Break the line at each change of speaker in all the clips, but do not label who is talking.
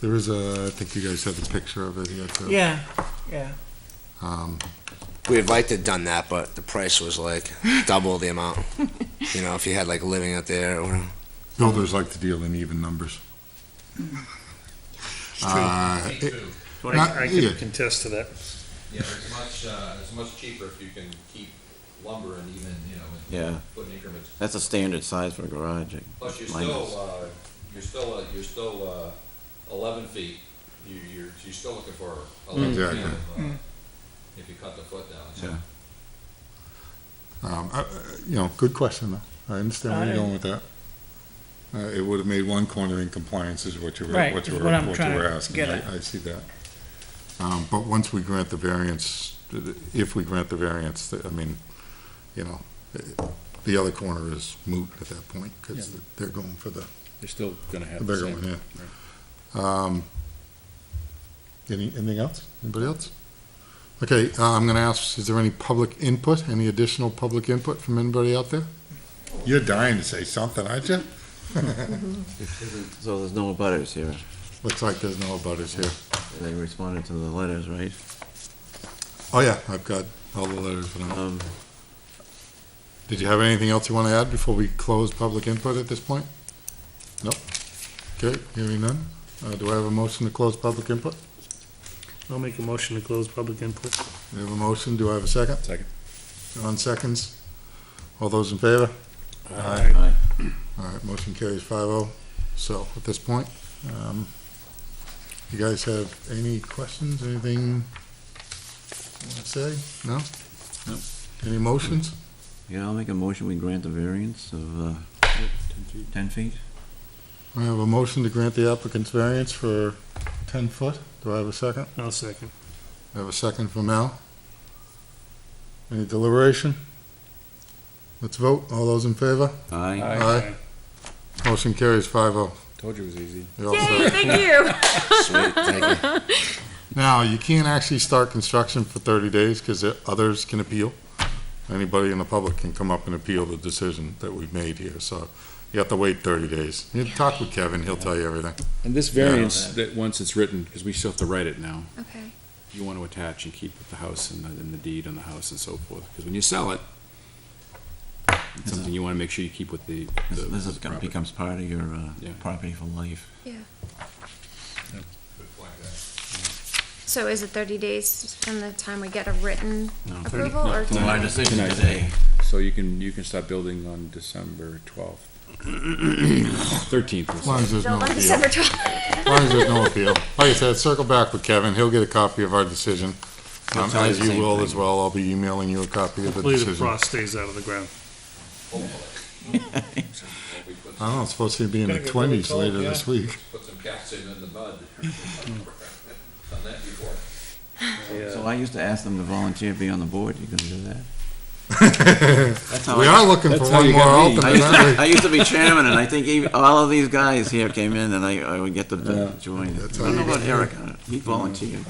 There is a, I think you guys have a picture of it here too.
Yeah, yeah.
Um,
We would like to have done that, but the price was like double the amount. You know, if you had like living out there or
Builders like to deal in even numbers. Uh, it-
Well,
Not-
I, I
yeah.
can contest to that.
Yeah, it's much, uh, it's much cheaper if you can keep lumber and even, you know, and
Yeah,
put in increments.
that's a standard size for a garage. I-
Plus, you're
mine is.
still, uh, you're still, uh, you're still, uh, eleven feet, you, you're, you're still looking for eleven feet
Exactly.
of, uh, if you cut the foot down, so.
Mm. Yeah.
um, I- I- You know, good question though. I understand where you're going with that. Uh, It would have made one corner in compliance is what you were,
Right,
what you
is
were,
what I'm
what you
trying
were
to
asking.
get at.
I I see that. Um, But once we grant the variance, if we grant the variance, I mean, you know, the other corner is moot at that point because they're going for the
They're still gonna have the
They're
same.
going, yeah. Um, Any, anything else? Anybody else? Okay, uh, I'm gonna ask, is there any public input, any additional public input from anybody out there? You're dying to say something, aren't you?
So there's no butters here.
Looks like there's no butters here.
They responded to the letters, right?
Oh, yeah, I've got all the letters. and all.
Um,
Did you have anything else you want to add before we close public input at this point? Nope. Okay, hearing none. Uh, do I have a motion to close public input?
I'll make a motion to close public input.
We have a motion, do I have a second?
Second.
John seconds. All those in favor? Aye.
Aye.
All right, motion carries five oh. So at this point, um, you guys have any questions, anything you want to say? No?
No.
Any motions?
Yeah, I'll make a motion, we grant the variance of, uh, ten feet?
I have a motion to grant the applicant's variance for ten foot. Do I have a second?
I'll second.
I have a second from Al. Any deliberation? Let's vote. All those in favor?
Aye.
Aye. Motion carries five oh.
Told you it was easy.
You're all set.
Yay, thank you.
sweet, thank you.
Now, you can't actually start construction for 30 days because others can appeal. Anybody in the public can come up and appeal the decision that we've made here, so you have to wait 30 days. You talk with Kevin, he'll tell you everything.
And this variance, that once it's written, because we still have to write it now,
Okay.
you want to attach and keep the house and the, and the deed on the house and so forth, because when you sell it, it's something you want to make sure you keep with the. the-
This this is
the
gonna,
property.
becomes part of your, uh,
Yeah.
property for life.
Good point, guys.
So is it 30 days from the time we get a written
No.
approval
No,
or
no,
From our
tonight?
decision
Tonight.
today.
So you can, you can start building on December twelfth. Thirteenth.
As long as there's no
No, on
appeal.
December 12th.
As long as there's no appeal. Like I said, circle back with Kevin, he'll get a copy of our decision.
He'll
Um,
tell you
As
the
you
same
will
thing.
as well, I'll be emailing you a copy of the
Hopefully the
decision.
frost stays out of the ground.
We put,
I don't know, it's supposed to be in the 20s later this week.
put some cats in in the mud. Done that before.
So I used to ask them to volunteer to be on the board, you gonna do that? That's how
We
I-
are looking for
That's how
one
you
more
got me.
alternate,
I used,
aren't we?
to, I used to be chairman, and I think even, all of these guys here came in, and I, I would get them to join. I
That's how
don't know
you
about
get-
Eric, uh, he volunteered.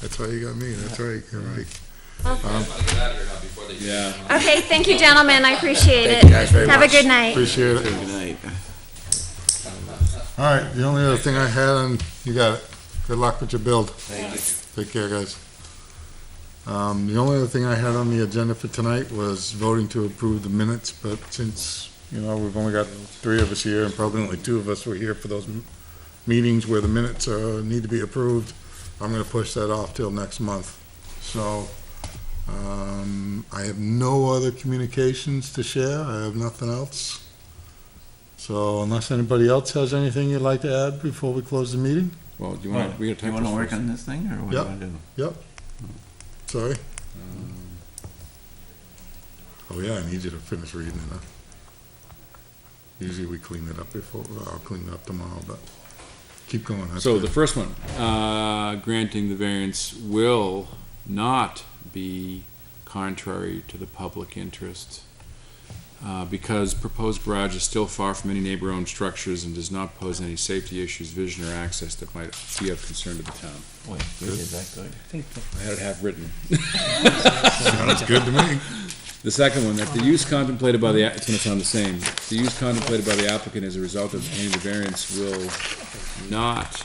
That's why you got me, that's right, you're right.
I just wanna get out of here now before they.
Yeah.
Okay, thank you, gentlemen. I appreciate it.
Thank you guys very
Have a
much.
good night.
Appreciate it.
Good night.
All right, the only other thing I had, and you got it. Good luck with your build. Take care, guys. Um, the only other thing I had on the agenda for tonight was voting to approve the minutes, but since, you know, we've only got three of us here, and probably only two of us were here for those m- meetings where the minutes, uh, need to be approved, I'm gonna push that off till next month. So, um, I have no other communications to share, I have nothing else. So unless anybody else has anything you'd like to add before we close the meeting?
Well, do you
Well,
want, Oh, we got
Do Oh, you
time
wanna work
for
on this thing, or what do you
Yep.
wanna do?
Sorry? Oh, yeah, I need you to finish reading it, huh? Usually we clean it up before, well, I'll clean it up tomorrow, but keep going. that's
So
good.
the first one, uh, granting the variance will not be contrary to the public interest uh, because proposed garage is still far from any neighbor-owned structures and does not pose any safety issues, vision, or access that might be of concern to the town.
Boy, we did that good.
I had it half written.
Sounds good to me.
The second one, that the use contemplated by the, a- it's gonna sound the same, the use contemplated by the applicant as a result of obtaining the variance will not